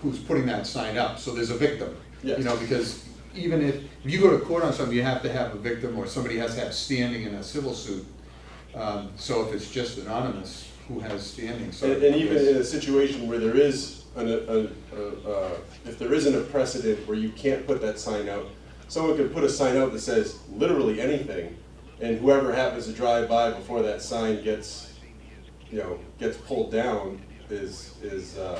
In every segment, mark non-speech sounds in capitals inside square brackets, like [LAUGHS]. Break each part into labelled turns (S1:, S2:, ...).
S1: who's putting that sign up, so there's a victim. You
S2: Yes.
S1: know, because even if, if you go to court on something, you have to have a victim, or somebody has to have standing in a civil suit. Um, so if it's just anonymous, who has standing, so.
S2: And, and even
S1: it's-
S2: in a situation where there is an, a, a, uh, if there isn't a precedent where you can't put that sign out, someone could put a sign out that says literally anything, and whoever happens to drive by before that sign gets, you know, gets pulled down is, is, uh,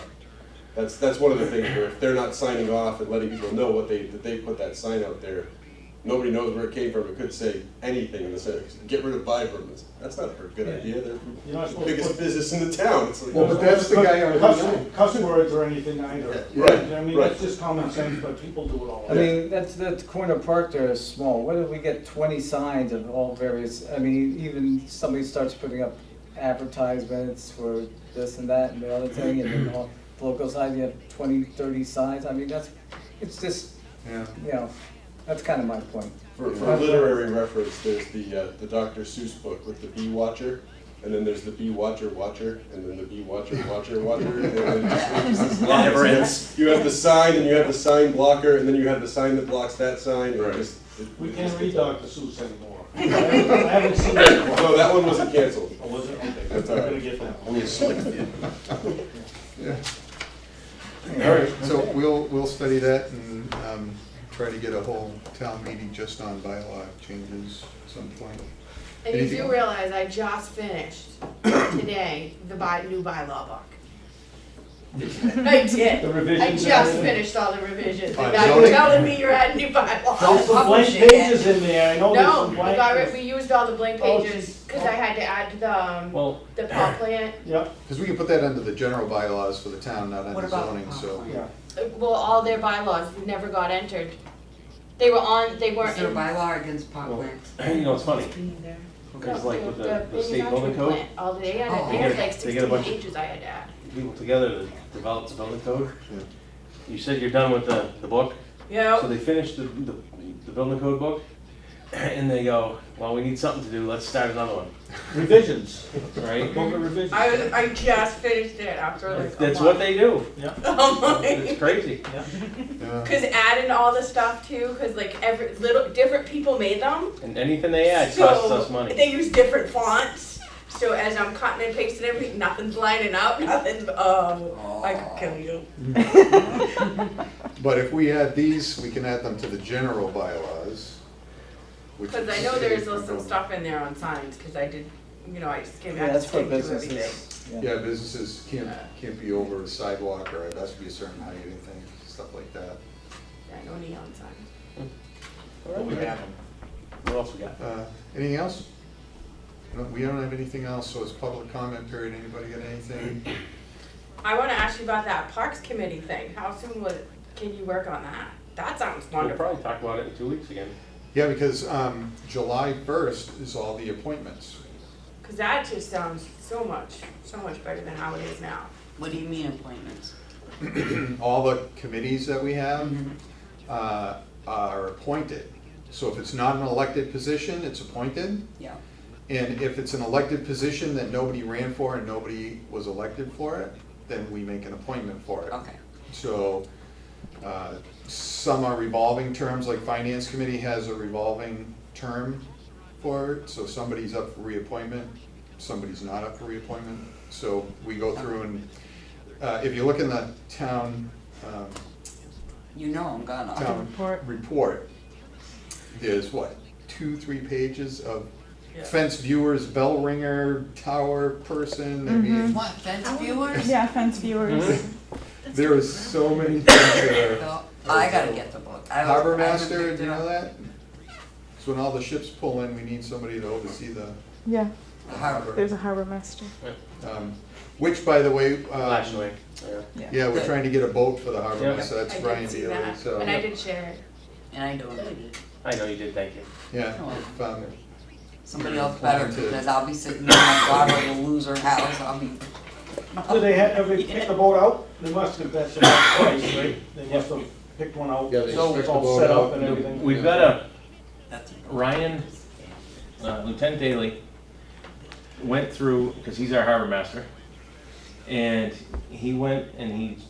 S2: that's, that's one of the things where if they're not signing off and letting people know what they, that they put that sign out there, nobody knows where it came from, it could say anything in the sentence, get rid of Vibrams, that's not a good idea, they're
S3: You're not
S2: the
S3: supposed to
S2: biggest
S3: put-
S2: business in the town, it's like.
S1: Well, but that's the guy on-
S3: Cuss- Cuss words or anything either.
S2: Yeah, right,
S3: You know what I mean,
S2: right.
S3: that's just common sense, but people do it all.
S4: I mean, that's, that corner park there is small, what if we get twenty signs of all various, I mean, e, even somebody starts putting up advertisements for this and that and the other thing, and then all, the local side, you have twenty, thirty signs, I mean, that's, it's just,
S1: Yeah.
S4: you know, that's kind of my point.
S2: For, for literary reference, there's the, uh, the Dr. Seuss book with the bee watcher, and then there's the bee watcher watcher, and then the bee watcher watcher watcher, and then
S5: [LAUGHS]
S2: it's- it's-
S5: It never ends.
S2: You have the sign, and you have the sign blocker, and then you have the sign that blocks that sign, and it just. it-
S3: We
S2: it
S3: can't
S2: just-
S3: read Dr. Seuss anymore. [LAUGHS] I haven't I haven't seen it. in a
S2: No,
S3: while.
S2: that one wasn't canceled.
S3: I wasn't, okay, I'm
S2: That's all right.
S3: gonna get that one.
S5: Only a select few.
S1: Yeah. All right, so we'll, we'll study that and um, try to get a whole town meeting just on bylaw changes at some point.
S6: And you
S1: Anything
S6: do
S1: else?
S6: realize I just finished today the by, new bylaw
S5: [LAUGHS]
S6: book. I did.
S3: The
S6: I
S3: revisions. and
S6: just
S3: everything.
S6: finished all the revisions,
S1: Fine,
S6: and now you're
S1: zoning.
S6: telling me you're adding new
S3: There's
S6: bylaws.
S3: some blank
S7: Publishing it.
S3: pages in there, I know there's
S6: No,
S3: some
S6: we
S3: blank.
S6: got rid, we used all the blank
S3: Oh,
S6: pages,
S3: geez.
S6: cause I had to add the, um,
S3: Well,
S6: the pot plant,
S3: yeah,
S1: Because we can put that under the general bylaws for the town, not
S7: What
S1: under
S7: about
S1: zoning,
S7: the
S1: so.
S3: yeah.
S6: Uh, well, all their bylaws never got entered. They were on, they
S7: Is
S6: weren't
S7: there a
S6: in.
S7: bylaw against pot plants?
S5: [CLEARS THROAT] You know, it's funny, because
S6: No,
S5: like with the, the
S6: manufacturing
S5: state building code,
S6: plant, All they had,
S7: Oh.
S6: they
S7: They
S5: get
S6: had
S5: a-
S6: like
S5: they get a
S6: sixteen
S5: bunch of-
S6: pages I had to add.
S5: people together to develop the building code.
S1: Yeah.
S5: You said you're done with the, the book,
S6: Yeah.
S5: so they finished the, the, the building code book, [CLEARS THROAT] and they go, well, we need something to do, let's start another one,
S3: Revisions,
S5: right?
S3: book of revisions.
S6: I was, I just finished it after like a
S5: That's
S6: [LAUGHS]
S5: what they do,
S6: Because
S5: it's crazy.
S1: yeah.
S6: adding all the stuff too, because like every little different people made them.
S5: And anything they add
S6: so
S5: costs us money.
S6: They use different fonts. So as I'm cutting and pasting everything, nothing's lining up. [LAUGHS] Nothing's. Oh, I could kill you.
S1: But if we add these, we can add them to the general bylaws. which
S6: Because I
S1: is
S6: know there's
S1: saved
S6: some
S1: from-
S6: stuff in there on signs. Because I did, you know, I just came
S4: Yeah,
S6: back to
S4: that's for
S6: stick to everything.
S4: businesses, yeah.
S1: Yeah, businesses can't, can't be over a sidewalk or it has to be a certain height, anything, stuff like that.
S6: Yeah, no neon signs.
S5: What else we got?
S1: Uh, Anything else? No, We don't have anything else, so it's public comment period. Anybody got anything?
S6: I want to ask you about that parks committee thing. How soon was? Can you work on that? That sounds
S5: We'll
S6: wonderful.
S5: probably talk about it in two weeks again.
S1: Yeah, because um, July first is all the appointments.
S6: Because that just sounds so much, so much better than how it is now.
S7: What do you mean appointments?
S1: All the committees that we have
S6: Mm-hmm.
S1: uh, are appointed. So if it's not an elected position, it's appointed.
S7: Yeah.
S1: And if it's an elected position that nobody ran for and nobody was elected for it, then we make an appointment for it.
S7: Okay.
S1: So, uh, some are revolving terms, like finance committee has a revolving term for it, so somebody's up for reappointment, somebody's not up for reappointment. So we go through and, uh, if you look in the town, um,
S7: You know I'm gonna.
S1: town report, there's what, two, three pages of
S6: Yeah.
S1: fence viewers, bell ringer, tower person, I mean,
S7: What, fence viewers?
S8: Yeah, fence viewers.
S1: there is so many things
S6: [LAUGHS]
S1: that are.
S7: No, I gotta get the book. I was-
S1: Harbor
S7: I haven't
S1: master,
S7: picked
S1: do you
S7: it
S1: know
S7: up.
S1: that? So when all the ships pull in, we need somebody to oversee the
S8: Yeah,
S7: The harbor.
S8: there's a harbor master.
S1: Um, Which, by the way, um,
S5: Last week, yeah.
S1: yeah, we're trying to get a boat for the harbor,
S5: Yeah.
S1: so that's
S6: I
S1: Ryan
S6: did see
S1: Daly,
S6: that,
S1: so,
S6: and I did share it.
S7: And I don't need it.
S5: I know you did, thank you.
S1: yeah.
S7: Oh.
S1: if, um,
S7: Somebody else better,
S1: Wanted to-
S7: because I'll be sitting there, my daughter will lose her house, I'll be.
S3: Do they have, have they picked the boat out? They must have, that's about twice, right? They must have picked one out.
S1: Yeah, they
S3: So
S1: picked
S3: it's
S1: the
S3: all
S1: boat
S3: set
S1: out.
S3: up and everything.
S5: We've got a,
S7: That's
S5: Ryan, uh, Lieutenant Daly, went through, because he's our harbor master, and he went and he